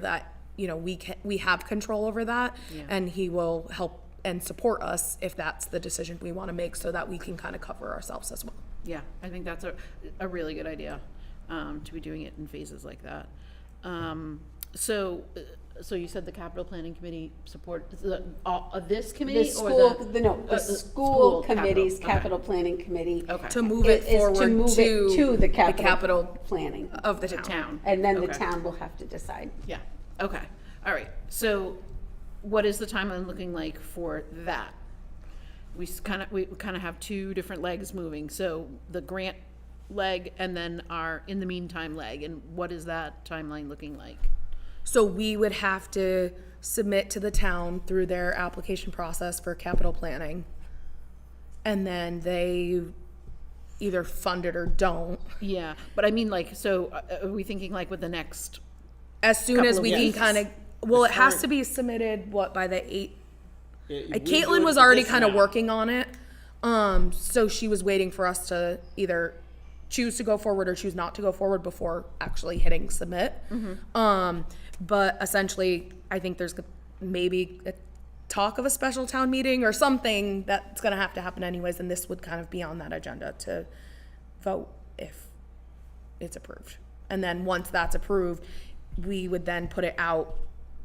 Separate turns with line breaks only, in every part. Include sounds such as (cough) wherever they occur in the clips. that, you know, we can, we have control over that. And he will help and support us if that's the decision we want to make so that we can kind of cover ourselves as well.
Yeah, I think that's a, a really good idea, um, to be doing it in phases like that. Um, so, uh, so you said the capital planning committee support, is the, all of this
The
committee or
school,
the?
the, no,
uh,
the school committee's capital
capital,
planning committee.
Okay,
To
okay,
move
is- is
it
to
forward
move it
to
the capital.
capital Oh,
Planning.
of the
the
town.
town.
And then the
Okay.
town will have to decide.
Yeah, okay, all right, so what is the timeline looking like for that? We kind of, we kind of have two different legs moving, so the grant leg and then our in the meantime leg, and what is that timeline looking like?
So we would have to submit to the town through their application process for capital planning. And then they either fund it or don't.
Yeah, but I mean, like, so uh, are we thinking like with the next?
As soon
Couple
as
of
we can
weeks.
kind of, well, it has
current-
to be submitted, what, by the eight?
Yeah,
Uh,
we're
Caitlin
doing
was
this
already kind of
now.
working on it. Um, so she was waiting for us to either choose to go forward or choose not to go forward before actually hitting submit.
Mm-hmm.
Um, but essentially, I think there's maybe a talk of a special town meeting or something that's going to have to happen anyways. And this would kind of be on that agenda to vote if it's approved. And then once that's approved, we would then put it out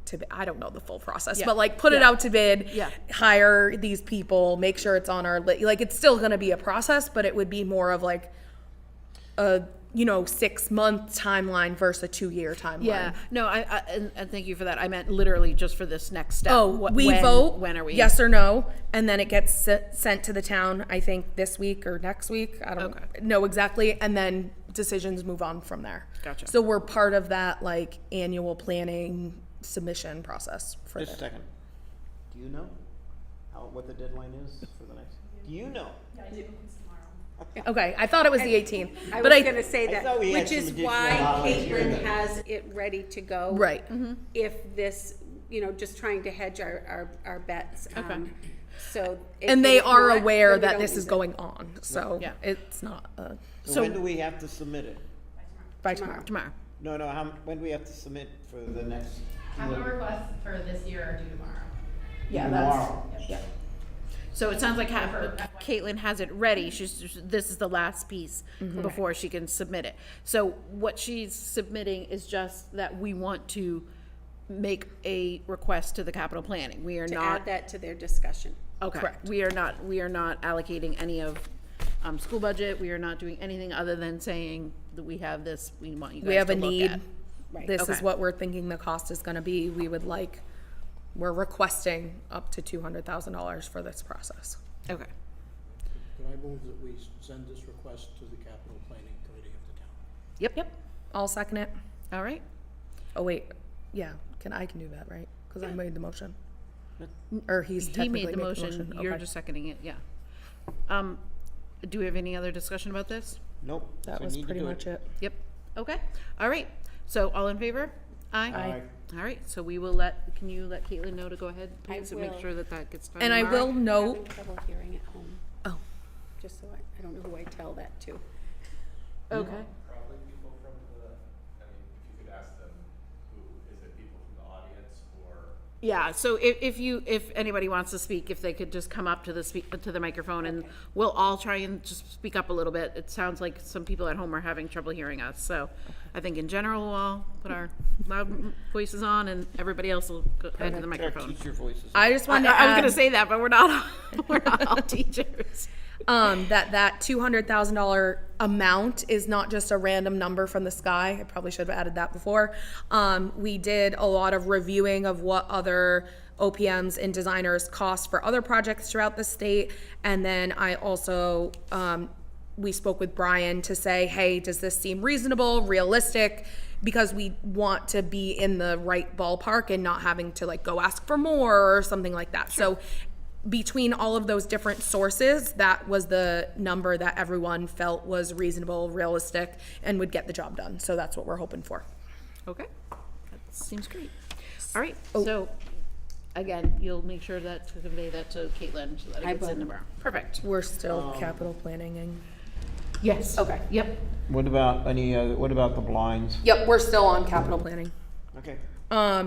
to, bi- I don't know the full process,
Yeah.
but like put it
Yeah.
out to bid,
Yeah.
hire these people, make sure it's on our, li- like, it's still gonna be a process, but it would be more of like a, you know, six month timeline versus a two year timeline.
No, I, I and, and thank you for that. I meant literally just for this next step.
Oh,
What-
we
when-
vote.
When are we?
Yes or no, and then it gets se- sent to the town. I think this week or next week. I don't
Okay.
know exactly. And then decisions move on from there.
Gotcha.
So we're part of that like annual planning submission process for
Just a
the
second. Do you know how, what the deadline is for the next? Do you know?
Okay, I thought it was the 18th,
I
but
was
I
gonna say
I
that,
thought we had
which
some
is
additional
why
dollars here
Caitlin
that-
has it ready to go.
right.
mm-hmm. If this, you know, just trying to hedge our, our, our bets. um, So. if
And they
it's
are
not,
aware
then we
that
don't
this
use
is
it.
going on, so
Yeah.
it's not uh,
So when do we have to submit it?
by tomorrow.
Tomorrow.
No, no, how, when do we have to submit for the next?
Capital requests for this year are due tomorrow.
Yeah,
Tomorrow.
So it sounds like ha- Caitlin has it ready. She's just- this is the last piece
Mm-hmm.
before she can submit it. So what she's submitting is just that we want to make a request to the capital planning. We are
To
not
add that to their discussion.
Okay. We are not, we are not allocating any of, um, school budget, we are not doing anything other than saying that we have this, we want you
we
guys
have
to
a
look at.
need. This is
okay.
what we're thinking the cost is gonna be. We would like, we're requesting up to two hundred thousand dollars for this process.
Okay,
Could I move that we send this request to the capital planning committee of the town?
yep, yep,
I'll second it.
all right.
Oh, wait, yeah, can, I can do that, right? Cause I made the motion. Or he's
He
technically
made
made
the motion, you're
Okay.
just seconding it, yeah. Um, do we have any other discussion about this?
Nope.
That
so
was
need to
pretty
do
much it.
Yep, okay, all right, so all in favor? Aye.
Aye.
All right, so we will let, can you let Caitlin know to go ahead,
I
please, and make
will.
sure that that gets done
And I
tomorrow?
will
I'm
note,
having trouble hearing at home,
oh,
just so I, I don't know who I tell that to.
Okay,
Probably people from the, I mean, if you could ask them, who, is it people from the audience or?
Yeah, so if, if you, if anybody wants to speak, if they could just come up to the speak, to the microphone and we'll all try and just speak up a little bit. It sounds like some people at home are having trouble hearing us, so I think in general, we'll all put our loud m- voices on and everybody else will go into the
Our
microphone.
teacher voices.
I just
I,
wanted to
I was gonna
add,
say that, but we're not, all- (laughs) we're not all teachers.
um, that that two hundred thousand dollar amount is not just a random number from the sky. I probably should have added that before. Um, we did a lot of reviewing of what other OPMs and designers cost for other projects throughout the state, and then I also um, we spoke with Brian to say, hey, does this seem reasonable, realistic? Because we want to be in the right ballpark and not having to like go ask for more or something like that. So between all of those different sources, that was the number that everyone felt was reasonable, realistic, and would get the job done. So that's what we're hoping for.
Okay, that seems great. All right, so again, you'll make sure that to convey that to Caitlin so that it gets in tomorrow. Perfect.
We're still capital planning and.
Yes. Okay. Yep.
What about any, uh, what about the blinds?
Yep, we're still on capital planning.
Okay.
Um,